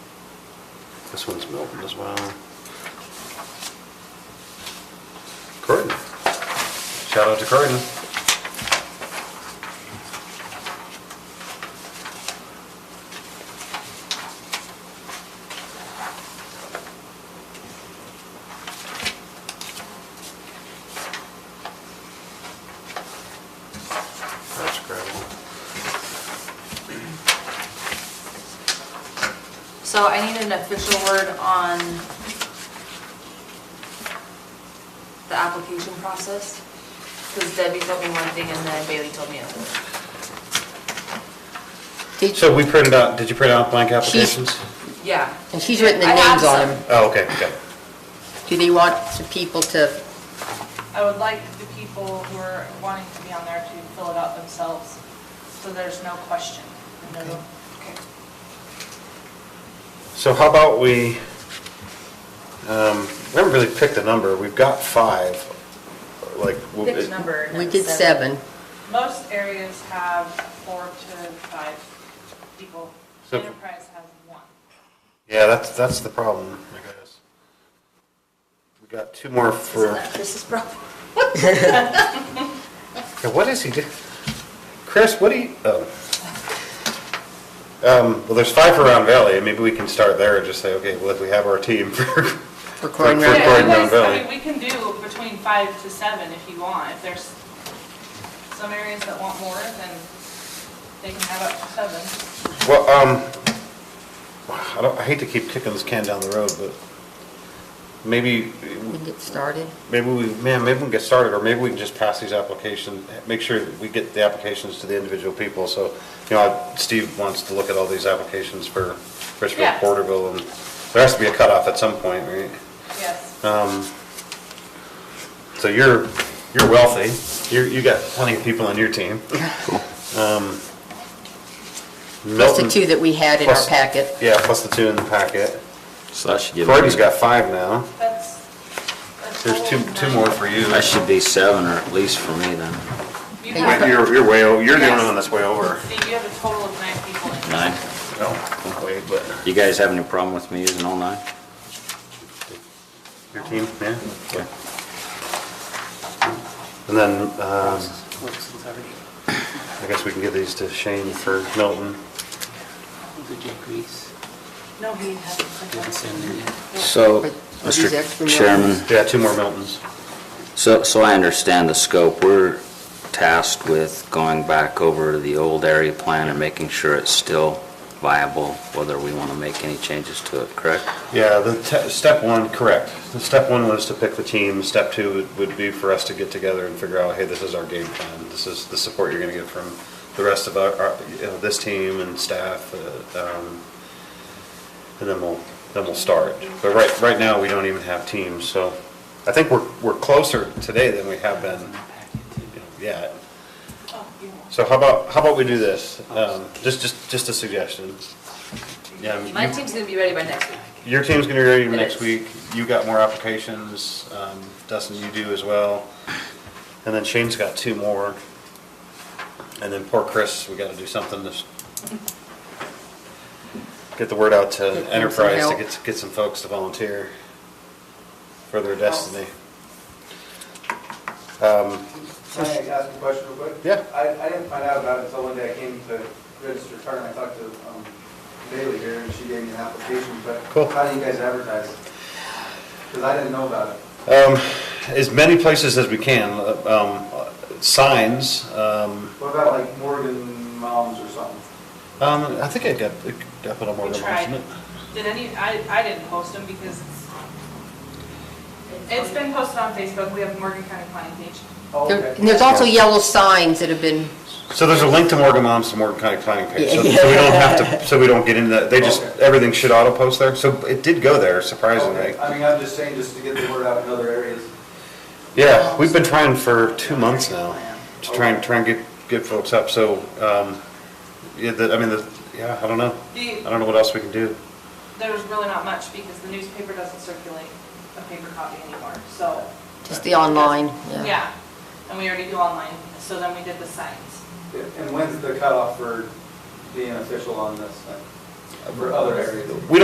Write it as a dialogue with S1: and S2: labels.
S1: This one's Milton as well. Croydon. Shout out to Croydon. That's gravel.
S2: So I need an official word on the application process, because Debbie told me one thing and then Bailey told me another.
S3: Did-
S1: So we printed out, did you print out blank applications?
S2: Yeah.
S3: And she's written the
S2: I have
S3: names on
S2: some.
S3: them.
S1: Oh, okay, okay.
S3: Do they want the people to,
S4: I would like the people who are wanting to be on there to fill it out themselves, so there's no question. and no-
S3: Okay.
S2: Okay.
S1: So how about we, um, we haven't really picked a number, we've got five, like. we'll-
S4: Pick a number. and
S3: we
S4: it's
S3: did seven.
S4: Most areas have four to five people.
S1: So-
S4: Enterprise has one.
S1: Yeah, that's, that's the problem, I guess. We got two more for,
S2: Isn't that Chris's problem?
S1: Yeah, what is he do? Chris, what do you, oh. Um, well, there's five for Round Valley, and maybe we can start there and just say, okay, well, if we have our team for. For
S3: Croydon
S1: for
S3: Round
S4: Yeah,
S3: Valley.
S1: Croydon Round
S4: because, I mean,
S1: Valley.
S4: we can do between five to seven if you want. If there's some areas that want more, then they can have up to seven.
S1: Well, um, I don't, I hate to keep kicking this can down the road, but maybe
S3: We can get started.
S1: Maybe we, man, maybe we can get started, or maybe we can just pass these applications, make sure that we get the applications to the individual people, so, you know, Steve wants to look at all these applications for Richfield,
S4: Yeah.
S1: Porterville, and there has to be a cutoff at some point, right?
S4: Yes.
S1: Um, so you're, you're wealthy, you, you got plenty of people on your team. Um,
S3: Plus the
S1: Milton-
S3: two that we had in our
S1: plus-
S3: packet.
S1: Yeah, plus the two in the packet.
S5: So that should give.
S1: Croydon's got five now,
S4: That's. that's
S1: there's two,
S4: all of
S1: two
S4: mine.
S1: more for you.
S5: That should be seven or at least for me then.
S4: You
S3: Thank
S4: have,
S1: Wait,
S4: see,
S1: You're, you're way, o- you're the only one that's way over.
S4: you have a total of nine people in.
S5: Nine.
S1: No, wait, but.
S5: You guys have any problem with me using all nine?
S1: Your team, yeah.
S5: Okay.
S1: And then, um, I guess we can give these to Shane for Milton.
S6: Did you grease?
S4: No, he hasn't.
S6: Didn't send them yet.
S5: So,
S3: Are these extra
S5: Mr.
S3: million?
S5: Chairman,
S1: Yeah, two more Miltons.
S5: so, so I understand the scope. We're tasked with going back over the old area plan and making sure it's still viable, whether we want to make any changes to it, correct?
S1: Yeah, the, te- step one, correct. The step one was to pick the team. Step two would- would be for us to get together and figure out, hey, this is our game plan. This is the support you're gonna get from the rest of our, our- you know, this team and staff, uh, um, and then we'll, then we'll start. But right, right now, we don't even have teams, so I think we're, we're closer today than we have been you know, yet.
S4: Oh, you won't.
S1: So how about, how about we do this? Um, just, just, just a suggestion. Yeah, I mean,
S2: My
S1: you-
S2: team's gonna be ready by next week.
S1: your team's gonna be ready
S2: It
S1: next
S2: is.
S1: week. You got more applications. Um, Dustin, you do as well. And then Shane's got two more. And then poor Chris, we gotta do something to s- get the word out to
S3: Get him some
S1: Enterprise to
S3: help.
S1: get, get some folks to volunteer for their destiny. Um,
S7: Can I ask a question real quick?
S1: Yeah.
S7: I, I didn't find out about it until one day I came to register a car and I talked to um, Bailey here and she gave me an application, but
S1: Cool.
S7: how do you guys advertise? Because I didn't know about it.
S1: um, as many places as we can, uh, um, signs, um,
S7: What about like Morgan Moms or something?
S1: um, I think I got, it got put on more
S4: We
S1: than
S4: tried.
S1: one.
S4: Did any, I, I didn't post them because it's, it's been posted on Facebook. We have Morgan County Planning page.
S7: Oh,
S3: There-
S7: okay.
S3: And there's also yellow signs that have been,
S1: So there's a link to Morgan Moms and Morgan County Planning page, so so we
S3: Yeah.
S1: don't have to, so we don't get into that, they just,
S7: Okay.
S1: everything should auto-post there, so it did go there, surprisingly.
S7: Okay. I mean, I'm just saying, just to get the word out in other areas.
S1: Yeah, we've been trying for two months now, to try and, try and get, get folks up, so, um, yeah, that, I mean, the, yeah, I don't know. I
S4: The,
S1: don't know what else we can do.
S4: there's really not much because the newspaper doesn't circulate a paper copy anymore, so,
S3: just the online, yeah.
S4: yeah. And we already do online, so then we did the signs.
S7: Yeah, And when's the cutoff for being official on this thing, for other areas?
S1: We